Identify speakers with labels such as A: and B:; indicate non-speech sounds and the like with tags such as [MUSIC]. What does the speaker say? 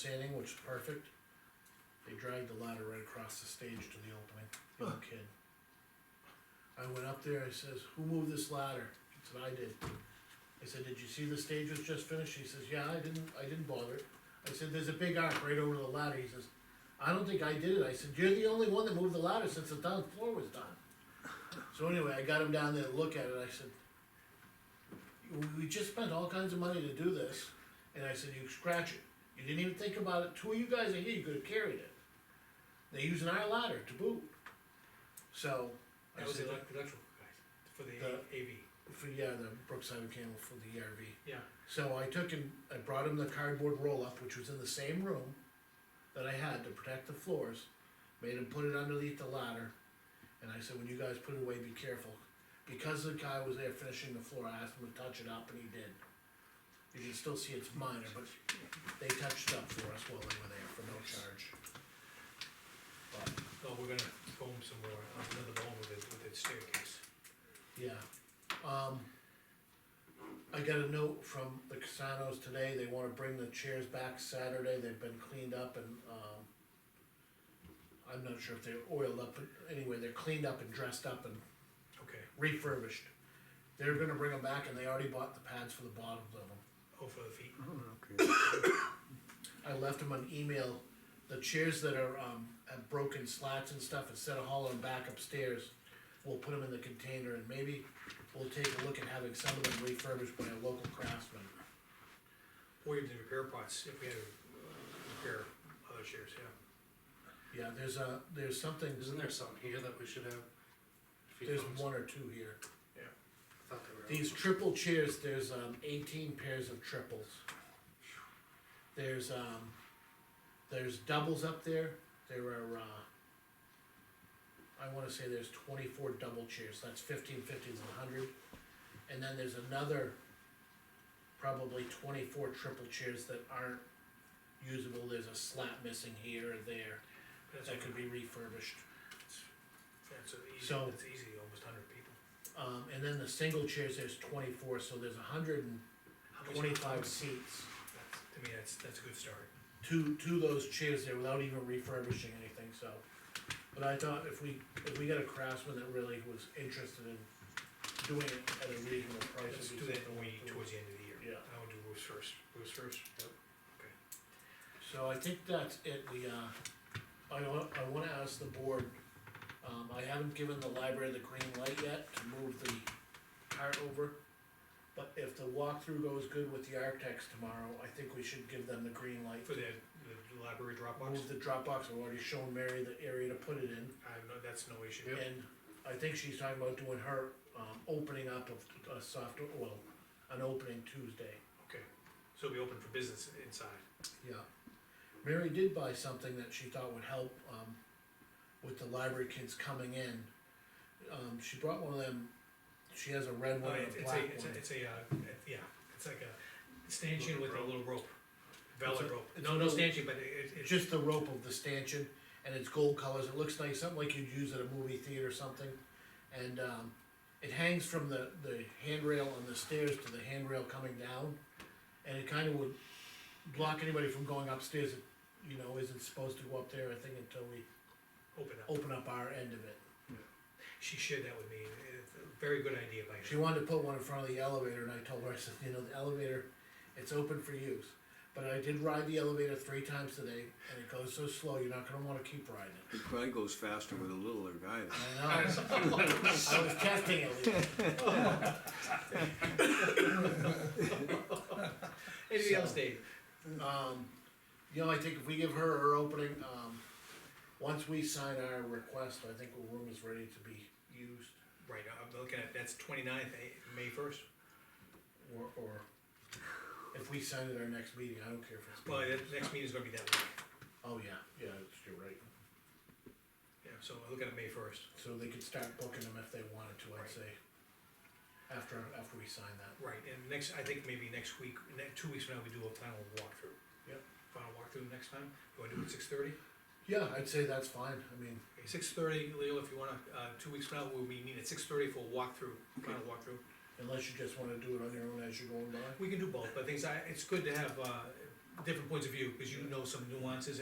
A: sanding, which is perfect. They dragged the ladder right across the stage to the opening, the old kid. I went up there, I says, who moved this ladder? He said, I did. I said, did you see the stage was just finished? He says, yeah, I didn't, I didn't bother it. I said, there's a big arc right over the ladder, he says, I don't think I did it, I said, you're the only one that moved the ladder since the down floor was done. So anyway, I got him down there to look at it, I said, "We- we just spent all kinds of money to do this, and I said, you scratch it, you didn't even think about it, two of you guys are here, you could have carried it. They're using our ladder to boot. So, I
B: That was the
A: said,
B: elec- electrical guys, for the
A: The-
B: AV,
A: for, yeah, the Brookside Mechanical for the ERV.
B: yeah.
A: So I took him, I brought him the cardboard roll-up, which was in the same room that I had to protect the floors, made him put it underneath the ladder, and I said, when you guys put it away, be careful. Because the guy was there finishing the floor, I asked him to touch it up, and he did. You can still see it's minor, but they touched up for us while they were there for no charge. But,
B: Oh, we're gonna foam some more, uh, another bone with it, with its staircase.
A: yeah, um, I got a note from the Casanos today, they wanna bring the chairs back Saturday, they've been cleaned up and, um, I'm not sure if they're oiled up, but anyway, they're cleaned up and dressed up and
B: Okay,
A: refurbished. They're gonna bring them back and they already bought the pads for the bottoms of them.
B: oh, for the feet,
A: Mm-hmm.
C: Okay,
A: I left them an email, the chairs that are, um, have broken slats and stuff, instead of hauling them back upstairs, we'll put them in the container and maybe we'll take a look at having some of them refurbished by a local craftsman.
B: or even the repair pots, if we had to uh, repair other chairs, yeah.
A: Yeah, there's a, there's something,
D: Isn't there some here that we should have? If he
A: there's
D: comes,
A: one or two here.
D: I thought they were out.
A: These triple chairs, there's, um, eighteen pairs of triples. There's, um, there's doubles up there, there are, uh, I wanna say there's twenty-four double chairs, that's fifteen, fifteen, a hundred. And then there's another, probably twenty-four triple chairs that aren't usable, there's a slat missing here or there,
B: That's,
A: that could
B: a-
A: be refurbished.
B: that's a easy,
A: So-
B: that's easy, almost hundred people.
A: Um, and then the single chairs, there's twenty-four, so there's hundred and
B: How much-
A: twenty-five seats.
B: That's- To me, that's, that's a good start.
A: to, to those chairs there without even refurbishing anything, so. But I thought if we, if we got a craftsman that really was interested in doing it at a reasonable price.
B: Let's
A: it'd
B: do
A: be
B: that
A: something
B: when we,
A: we could
B: towards the end of the year.
A: Yeah.
B: I would do roofs first, roofs first, yep.
A: do. So I think that's it, we, uh, I wa- I wanna ask the board, um, I haven't given the library the green light yet to move the cart over. But if the walkthrough goes good with the architects tomorrow, I think we should give them the green light.
B: For the, the library Dropbox,
A: Move the Dropbox, I've already shown Mary the area to put it in.
B: I have no, that's no issue.
A: And I think she's talking about doing her, um, opening up of a soft, well, an opening Tuesday.
B: Okay, so it'll be open for business inside.
A: Yeah. Mary did buy something that she thought would help, um, with the library kids coming in. Um, she brought one of them, she has a red one
B: Uh,
A: and
B: it's
A: a
B: it's a,
A: black
B: it's a,
A: one.
B: it's a, uh, yeah, it's like a stanchion with a little rope,
A: It's a-
B: velvet rope.
A: it's a
B: No, no
A: little-
B: stanchion, but it, it,
A: It's
B: it,
A: just the rope of the stanchion, and it's gold colors, it looks nice, something like you'd use at a movie theater or something. And, um, it hangs from the, the handrail on the stairs to the handrail coming down, and it kinda would block anybody from going upstairs, that, you know, isn't supposed to go up there, I think, until we
B: open up.
A: open up our end of it.
B: She shared that with me, and it's a very good idea by
A: She
B: her.
A: wanted to put one in front of the elevator, and I told her, I said, you know, the elevator, it's open for use. But I did ride the elevator three times today, and it goes so slow, you're not gonna wanna keep riding it.
C: it probably goes faster with a littler guy. than-
A: [LAUGHS] I know. I was testing it, Lee.
B: Anything
A: so-
B: else, Dave?
A: Um, you know, I think if we give her her opening, um, once we sign our request, I think the room is ready to be used,
B: Right, I'm looking at, that's twenty-ninth, eh, May first.
A: or, or if we sign at our next meeting, I don't care if it's.
B: Well, the next meeting's gonna be that week,
A: Oh, yeah, yeah, that's- you're right.
B: yeah, so I'm looking at May first.
A: So they could start booking them if they wanted to, I'd
B: Right.
A: say. After, after we sign that.
B: Right, and next, I think maybe next week, ne- two weeks from now, we do a final walkthrough.
A: Yep.
B: Final walkthrough next time, you wanna do it at six thirty?
A: Yeah, I'd say that's fine, I mean,
B: Six thirty, Leo, if you wanna, uh, two weeks from now, we'll be meeting at six thirty for a walkthrough, final walkthrough.
A: unless you just wanna do it on your own as you're going by.
B: We can do both, but things, I, it's good to have, uh, different points of view, because you know some nuances